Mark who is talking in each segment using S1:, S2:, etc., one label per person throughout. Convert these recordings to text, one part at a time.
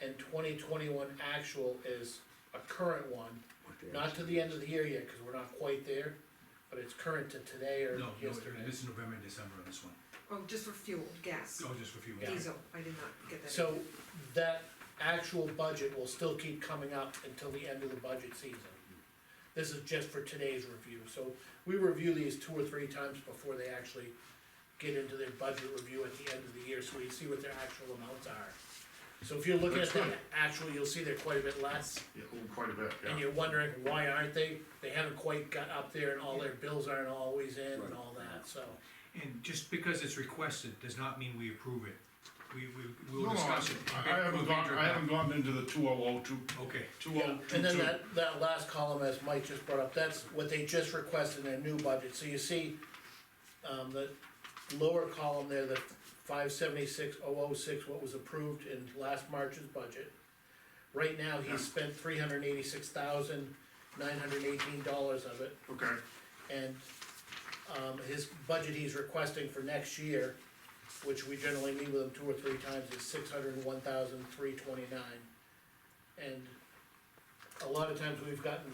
S1: and twenty twenty-one actual is a current one,
S2: Okay.
S1: not to the end of the year yet, cause we're not quite there, but it's current to today or
S3: No, no,
S1: yesterday.
S3: this is November and December on this one,
S4: Oh, just for fuel, gas,
S3: oh, just for fuel.
S1: Yeah.
S4: diesel, I did not get that.
S1: So that actual budget will still keep coming up until the end of the budget season. This is just for today's review, so we review these two or three times before they actually get into their budget review at the end of the year, so we see what their actual amounts are. So if you're looking at
S5: That's
S1: the
S5: right.
S1: actual, you'll see they're quite a bit less,
S5: Yeah, oh, quite a bit,
S1: and
S5: yeah.
S1: you're wondering, why aren't they? They haven't quite got up there and all their bills aren't always in and all that, so.
S3: And just because it's requested does not mean we approve it, we, we,
S5: No,
S3: we'll
S5: no, I
S3: discuss it.
S5: I haven't gone, I haven't gone into the two oh oh two,
S3: Okay,
S5: two
S1: Yeah,
S5: oh two
S1: and then
S5: two.
S1: that, that last column, as Mike just brought up, that's what they just requested in their new budget, so you see, um, the lower column there, the five seventy-six oh oh six, what was approved in last March's budget. Right now, he's spent three hundred eighty-six thousand, nine hundred eighteen dollars of it,
S5: Okay,
S1: and, um, his budget he's requesting for next year, which we generally meet with him two or three times, is six hundred and one thousand, three twenty-nine. And a lot of times we've gotten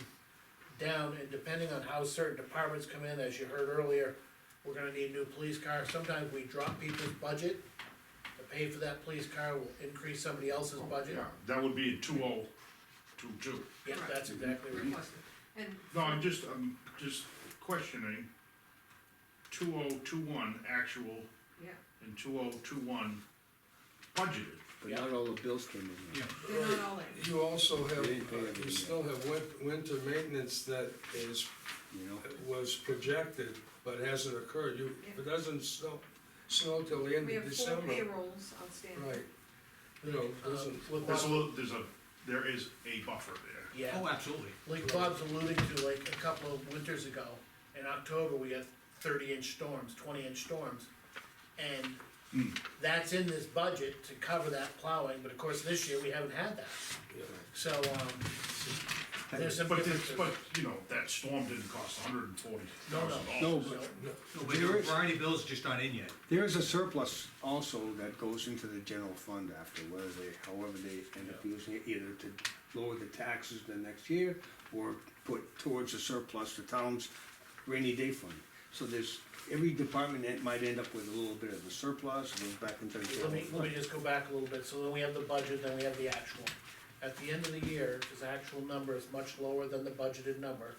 S1: down, and depending on how certain departments come in, as you heard earlier, we're gonna need a new police car, sometimes we drop people's budget to pay for that police car, we'll increase somebody else's budget.
S5: yeah, that would be two oh two two.
S1: Yeah, that's exactly right.
S4: Requested, and
S5: No, I'm just, I'm just questioning two oh two one actual
S4: Yeah,
S5: and two oh two one budgeted.
S2: But not all the bills came in.
S3: yeah,
S2: yet.
S4: they're not all in.
S6: You also have,
S2: They pay
S6: uh,
S2: everything.
S6: you still have win- winter maintenance that is,
S2: You know,
S6: was projected, but hasn't occurred, you,
S4: Yeah.
S6: it doesn't snow, snow till the end
S4: We
S6: of
S4: have four
S6: December.
S4: payrolls outstanding.
S6: Right, you know,
S1: Um,
S6: doesn't,
S1: with
S5: There's a
S1: Bob-
S5: little, there's a, there is a buffer there.
S1: Yeah.
S3: oh, absolutely,
S1: like Bob's alluding to, like a couple of winters ago, in October, we had thirty inch storms, twenty inch storms. And that's in this budget to cover that plowing, but of course, this year, we haven't had that.
S6: Yeah.
S1: So, um, there's some
S5: But it's,
S1: differences.
S5: but, you know, that storm didn't cost hundred and forty
S1: No, no.
S5: thousand dollars.
S2: No,
S1: So,
S3: no, but there are a variety of bills just not in yet,
S2: there is a surplus also that goes into the general fund after, whether they, however they end up using it, either to lower the taxes the next year or put towards the surplus the town's rainy day fund. So there's, every department that might end up with a little bit of a surplus, and goes back into the general
S1: Let me, let me
S2: fund.
S1: just go back a little bit, so then we have the budget, then we have the actual. At the end of the year, his actual number is much lower than the budgeted number.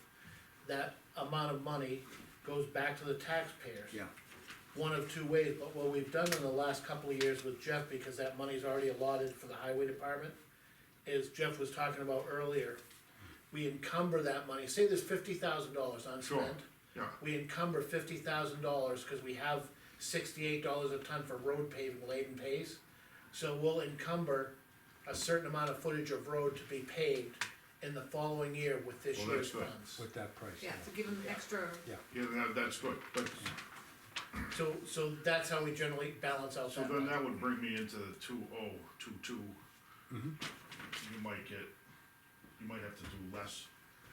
S1: That amount of money goes back to the taxpayers.
S2: Yeah,
S1: one of two ways, but what we've done in the last couple of years with Jeff, because that money's already allotted for the highway department, is Jeff was talking about earlier, we encumber that money, say there's fifty thousand dollars
S5: Sure,
S1: unspent.
S5: yeah,
S1: We encumber fifty thousand dollars, cause we have sixty-eight dollars a ton for road paving, laden pays. So we'll encumber a certain amount of footage of road to be paved in the following year with this
S5: Well,
S1: year's
S5: that's good.
S1: funds.
S2: with that price.
S4: Yeah, to give them extra,
S5: yeah, that, that's good, but,
S1: So, so that's how we generally balance out
S5: so
S1: that
S5: then
S1: money.
S5: that would bring me into the two oh two two. You might get, you might have to do less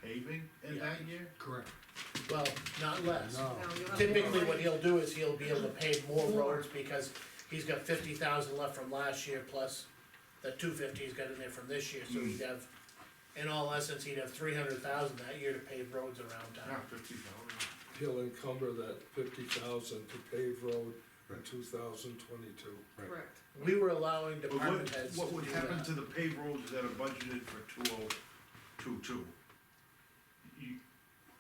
S5: paving in
S1: Yeah.
S5: that year?
S3: correct,
S1: Well, not less.
S4: now you'll have.
S1: Typically,
S4: more
S1: what
S4: money.
S1: he'll do is he'll be able to pave more
S4: More.
S1: roads because he's got fifty thousand left from last year plus the two fifty he's got in there from this year, so he'd have, in all essence, he'd have three hundred thousand that year to pave roads around
S5: Yeah,
S1: town.
S5: fifty thousand.
S6: he'll encumber that fifty thousand to pave road in
S2: Right.
S6: two thousand twenty-two.
S4: Correct.
S1: We were allowing
S5: But what,
S1: department heads to
S5: what would
S1: do
S5: happen
S1: that.
S5: to the pay rolls that are budgeted for two oh two two? You,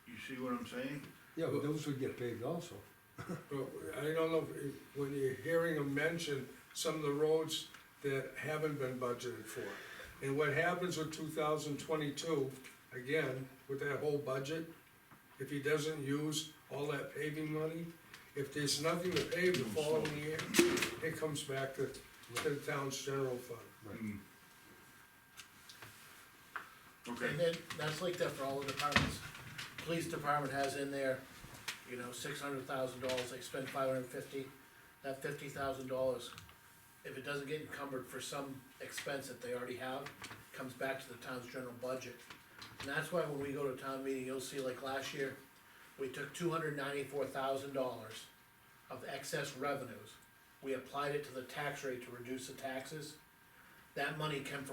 S5: you see what I'm saying?
S7: Yeah, but those would get paid also.
S6: But I don't know, if- when you're hearing them mention some of the roads that haven't been budgeted for. And what happens with two thousand twenty-two, again, with that whole budget, if he doesn't use all that paving money, if there's nothing to pave the following year, it comes back to, to the town's general fund.
S5: Hmm. Okay,
S1: And then, that's like that for all the departments. Police department has in there, you know, six hundred thousand dollars, they spend five hundred and fifty, that fifty thousand dollars, if it doesn't get encumbered for some expense that they already have, comes back to the town's general budget. And that's why when we go to town meeting, you'll see like last year, we took two hundred ninety-four thousand dollars of excess revenues. We applied it to the tax rate to reduce the taxes. That money came from